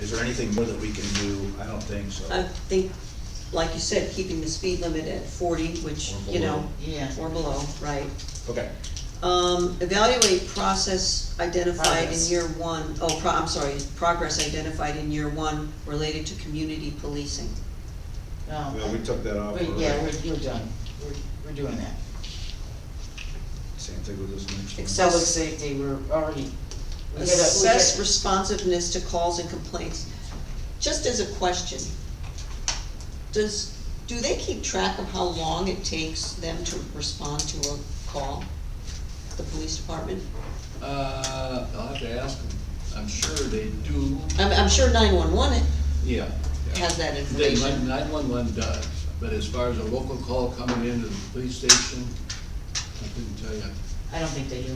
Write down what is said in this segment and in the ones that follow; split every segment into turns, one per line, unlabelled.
Is there anything more that we can do? I don't think so.
Uh,
I think, like you said, keeping the speed limit at forty, which,
Or
you know,
below.
Yeah.
or below, right?
Okay,
Um, evaluate process identified in
Progress.
year one, oh, pro, I'm sorry, progress identified in year one related to community policing.
No.
well, we took that off.
We- Yeah, we're,
already.
you're done, we're, we're doing that.
Same thing with this next one.
Except-
Public safety, we're already. we get a- we
Assess
get-
responsiveness to calls and complaints. Just as a question, does, do they keep track of how long it takes them to respond to a call? The police department?
Uh, I'll have to ask them. I'm sure they do,
I'm, I'm sure nine-one-one
yeah. yeah.
has that
They,
information.
nine-one-one does, but as far as a local call coming into the police station, I couldn't tell you.
I don't think they do.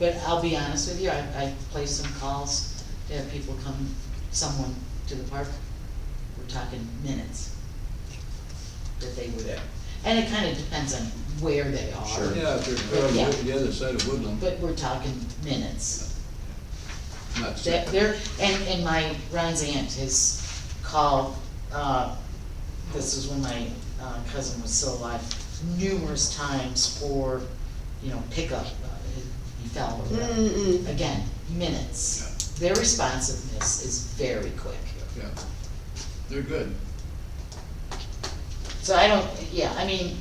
But I'll be honest with you, I, I placed some calls to have people come, someone to the park. We're talking minutes that they were there. And it kind of depends on where they are.
Sure.
Yeah, if they're on
Yeah.
the other side of Woodland,
But we're talking minutes.
not
That
certain.
there, and, and my, Ron's aunt has called, uh, this is when my uh, cousin was still alive, numerous times for, you know, pickup, uh, he fell or whatever.
Mm-mm.
Again, minutes. Their responsiveness is very quick.
Yeah, they're good.
So I don't, yeah, I mean,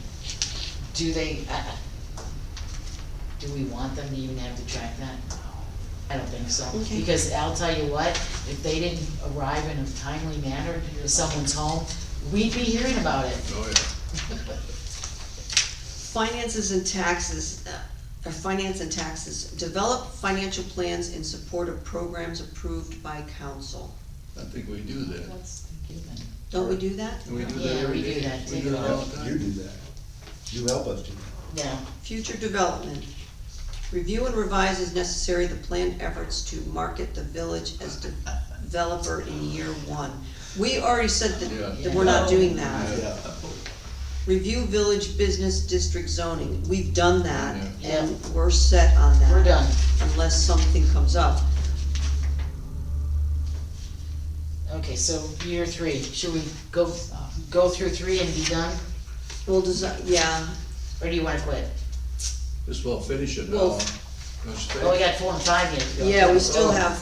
do they, I- I- do we want them to even have to track that? No, I don't think so,
Okay.
because I'll tell you what, if they didn't arrive in a timely manner to someone's home, we'd be hearing about it.
Oh, yeah.
Finances and taxes, uh, or finance and taxes, develop financial plans in support of programs approved by council.
I think we do that.
That's given.
Don't we do that?
And we do
Yeah,
that
we
every
do
day.
that
We
too.
do it all
Yeah,
the
You
time.
do that. You help us do that.
Yeah,
Future development. Review and revise as necessary the planned efforts to market the village as developer in year one. We already said that, that we're not doing that.
Yeah.
Review village business district zoning, we've done that,
Yeah.
and we're set on that.
we're done,
Unless something comes up.
okay, so year three, should we go, go through three and be done,
Well, does, that- yeah,
or do you wanna quit?
Just well finish it
Well-
all. Let's
Well, Oh, we
think.
got four and five yet to go.
yeah, we still
Oh.
have,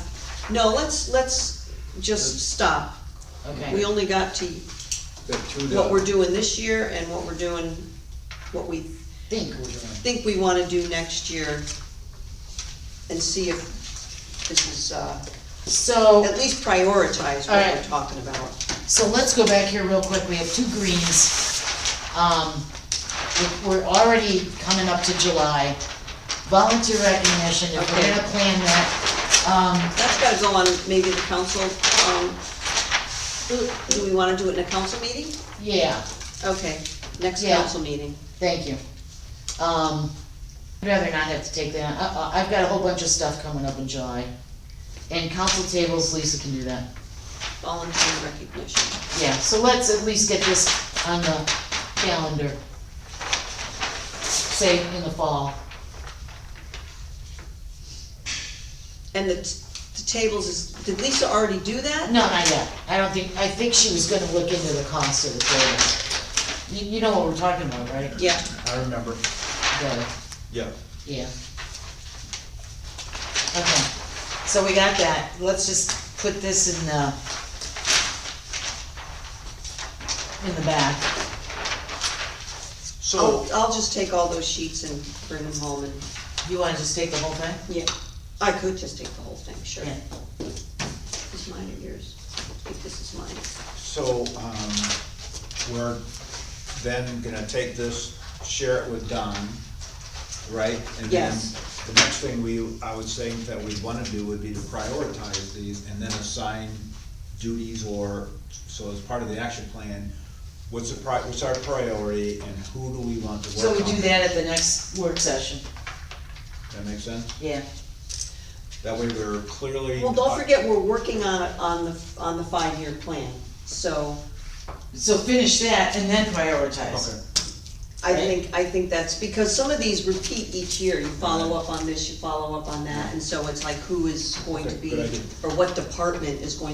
no, let's, let's just stop. We
Okay,
only got to
Got two
what
down.
we're doing this year and what we're doing, what we
think we're doing,
think we wanna do next year. And see if this is, uh,
so.
at least prioritize what we're
Alright.
talking about.
So let's go back here real quick, we have two greens. Um, we- We're already coming up to July. Volunteer recognition, if we're
Okay.
gonna plan that, um,
That's gotta go on maybe the council, um, do, do we wanna do it in a council meeting?
yeah,
Okay, next
Yeah.
council meeting.
thank you. Um, I'd rather not have to take that, I- I- I've got a whole bunch of stuff coming up in July. And council tables, Lisa can do that.
Volunteer recognition.
Yeah, so let's at least get this on the calendar. Say in the fall.
And the, t- the tables is, did Lisa already do that?
No, not yet. I don't think, I think she was gonna look into the cost of the building. You, you know what we're talking about, right?
Yeah,
I remember.
The-
Yeah.
yeah. Okay, so we got that. Let's just put this in the, in the back.
I'll,
Oh,
So,
I'll just take all those sheets and bring them home and,
You wanna just take the whole thing?
yeah, I could just take the whole thing, sure.
Yeah.
Is mine or yours? I think this is mine.
so, um, we're then gonna take this, share it with Don, right? And then
Yes.
The next thing we, I would say that we'd wanna do would be to prioritize these and then assign duties or, so as part of the action plan, what's the pri, what's our priority and who do we want to work
So
on?
we do that at the next work session.
That make sense?
Yeah.
That way we're clearly.
Well, don't forget, we're working on, it on the, on the five-year plan, so
So finish that and then prioritize.
Okay.
I think, I think that's, because some of these repeat each year, you follow up on this, you follow up on that, and so it's like who is going to
Okay,
be,
good idea.
or what department is going